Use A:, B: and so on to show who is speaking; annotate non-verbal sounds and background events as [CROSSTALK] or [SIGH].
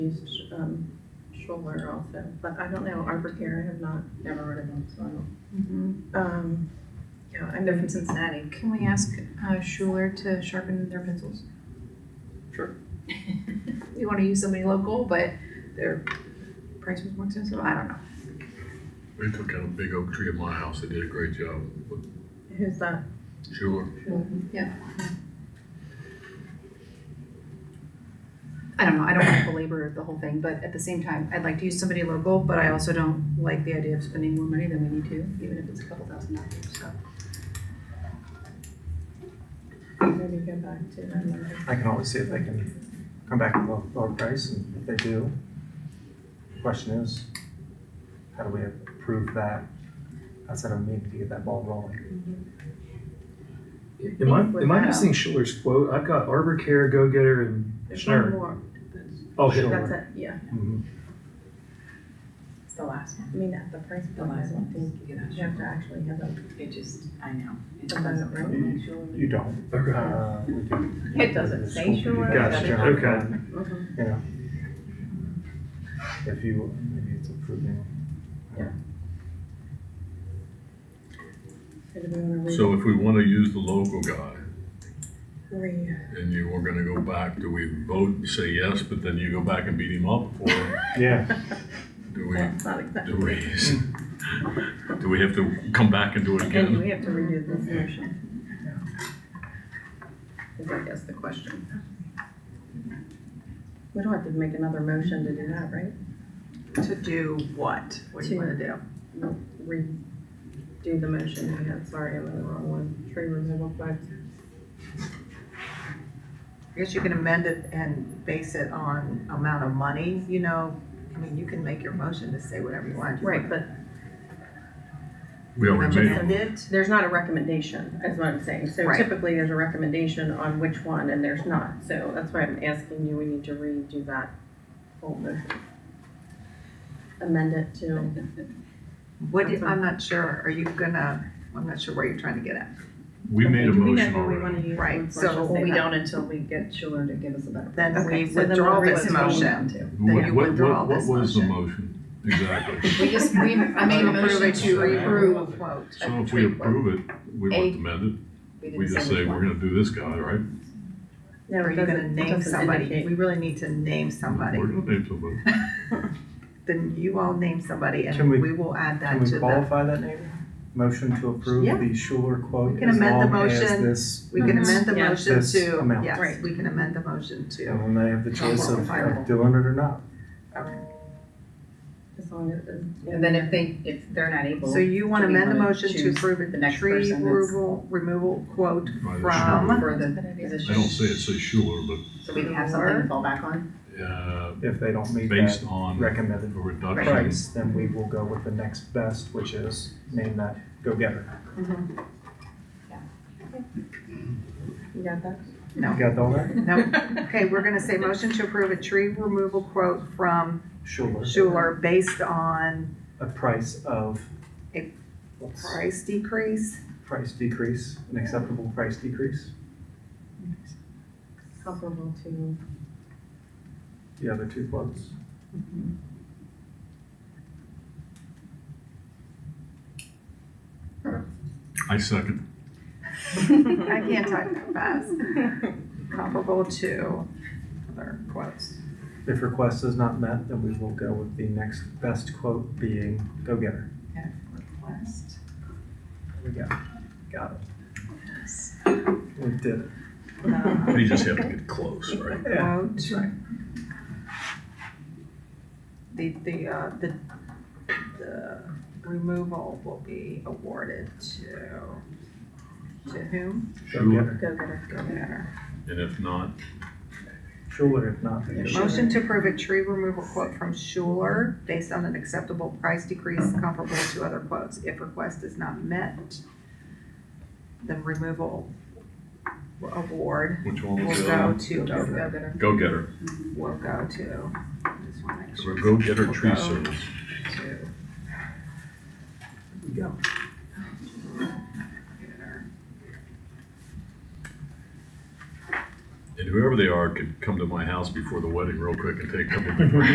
A: used um, Schuler also, but I don't know, Arbor Care, I have not, never heard of them, so I don't.
B: Mhm.
C: Mm-hmm.
A: Um, yeah, I know from Cincinnati.
B: Can we ask uh, Schuler to sharpen their pencils?
D: Sure.
B: [LAUGHS] We want to use somebody local, but their price was more expensive, I don't know.
E: We took out a big oak tree at my house. They did a great job.
A: Who's that?
E: Sure.
B: I don't know, I don't want to belabor the whole thing, but at the same time, I'd like to use somebody local, but I also don't like the idea of spending more money than we need to, even if it's a couple thousand dollars, so.
A: Maybe go back to them.
F: I can always see if they can come back with a lower price, and if they do, the question is, how do we approve that outside of meeting to get that ball rolling?
D: Am I, am I missing Schiller's quote? I've got Arbor Care, Go Getter, and
A: There's one
D: Schnurr.
A: more.
D: Oh,
A: That's
D: Schiller.
A: it, yeah.
D: Mhm.
C: It's the last one.
A: I mean, at the price of the
C: The last
A: last
C: one.
A: one, thing,
C: You
A: you have to
C: know,
A: actually have a,
C: it just, I know. It
A: a
C: doesn't
A: vote,
C: really.
A: right?
F: You don't.
D: Okay.
F: Uh, we do.
A: It doesn't say
F: School committee
A: sure.
F: does
D: Gotcha,
F: generally,
D: okay.
C: Mm-hmm.
A: Mhm.
F: You know, if you, maybe it's approving.
A: So do we wanna re-
E: So if we want to use the local guy
A: re-
E: and you were going to go back, do we vote and say yes, but then you go back and beat him up? Or
F: Yeah,
E: do we,
A: That's not exactly.
E: do we, do we have to come back and do it
A: And
E: again?
A: we have to redo this motion. Is I guess the question. We don't have to make another motion to do that, right?
C: To do what? What do you wanna do?
A: Redo the motion we had, sorry, I'm in the wrong one, tree removal back.
C: I guess you can amend it and base it on amount of money, you know? I mean, you can make your motion to say whatever you want.
A: Right, but
E: We already made
C: Amend
E: it.
C: it,
A: there's not a recommendation, is what I'm saying. So
C: Right.
A: typically, there's a recommendation on which one, and there's not. So that's why I'm asking you, we need to redo that whole motion. Amend it to,
G: What, do- I'm not sure, are you gonna, I'm not sure where you're trying to get at.
E: We made
A: Do
E: a
A: we know
E: motion
A: who we wanna
E: already.
A: use?
G: Right,
A: Let's
G: so
A: just
G: we
A: say that.
G: don't
A: until we get Schuler to give us a better.
G: Then we
A: Okay, so then
G: withdraw
A: we'll
G: this
A: withdraw.
G: motion.
E: What-
G: Then you
E: what-
G: withdraw
E: what- what
G: this
E: was the
G: motion.
E: motion?
A: [LAUGHS]
E: Exactly.
B: We just, we, I made a motion to approve a quote. a
E: So if
B: tree
E: we
B: quote.
E: approve it, we
B: A-
E: won't amend it.
B: didn't
E: We just
B: which
E: say,
B: one.
E: we're going to do this guy, right?
A: No,
G: Are
A: it
G: you gonna
A: doesn't, it
G: name
A: doesn't
G: somebody?
A: indicate.
G: We really need to name somebody.
E: We're going to name somebody.
G: Then you all name somebody
F: Can
G: and
F: we-
G: we will add that
F: can
G: to
F: we
G: the,
F: qualify that name? Motion to approve
G: Yeah.
F: the Schuler quote
G: We can
F: as
G: amend the
F: long as
G: motion.
F: this.
G: we can amend the
A: Yeah.
G: motion
F: This
G: to,
F: amount.
G: yes,
A: Right.
G: we can amend the motion to.
F: And then they have the choice of
G: Qualifiable.
F: doing it or not.
A: As long as it's-
H: And then if they, if they're not able,
G: So you want to
H: Do we
G: amend the
H: wanna
G: motion to
H: choose
G: approve
H: the
G: a
H: next
G: tree
H: person that's-
G: removal, removal quote
E: Right, it's
G: from,
H: for the
E: I don't say
H: position,
E: it says Schuler, but
H: so we can have something to fall back on.
E: uh,
F: If they don't meet
E: based
F: that
E: on a
F: recommended
E: reduction.
F: price, then we will go with the next best, which is name that go-getter.
A: You got that?
F: You got all that?
G: no, okay, we're going to say motion to approve a tree removal quote from
F: Sure.
G: Schuler based on
F: A price of.
G: A
F: What's-
G: price decrease.
F: Price decrease, an acceptable price decrease.
A: Comparable to,
F: The other two quotes.
E: I second.
G: I can't type that fast. Comparable to other quotes.
F: If request is not met, then we will go with the next best quote being go-getter.
G: Okay, request.
F: There we go. Got it. We did it.
G: Uh,
E: We just have to get close, right?
F: Yeah,
G: Quote.
F: that's right.
G: The, the, uh, the, the removal will be awarded to, to whom?
E: Schuler,
F: Go-getter.
A: go get her.
G: Go getter.
E: and if not,
F: Schuler if not. then go-getter.
G: Motion to approve a tree removal quote from Schuler based on an acceptable price decrease comparable to other quotes. If request is not met, then removal award
E: which one
G: will
E: was
G: go
E: that?
G: to,
B: Go
G: go-
B: get her.
E: Go getter.
G: will go to, just wanna make
E: Or
G: sure,
E: go getter tree
G: Go.
E: service.
G: to.
F: Go.
E: And whoever they are could come to my house before the wedding real quick and take a couple different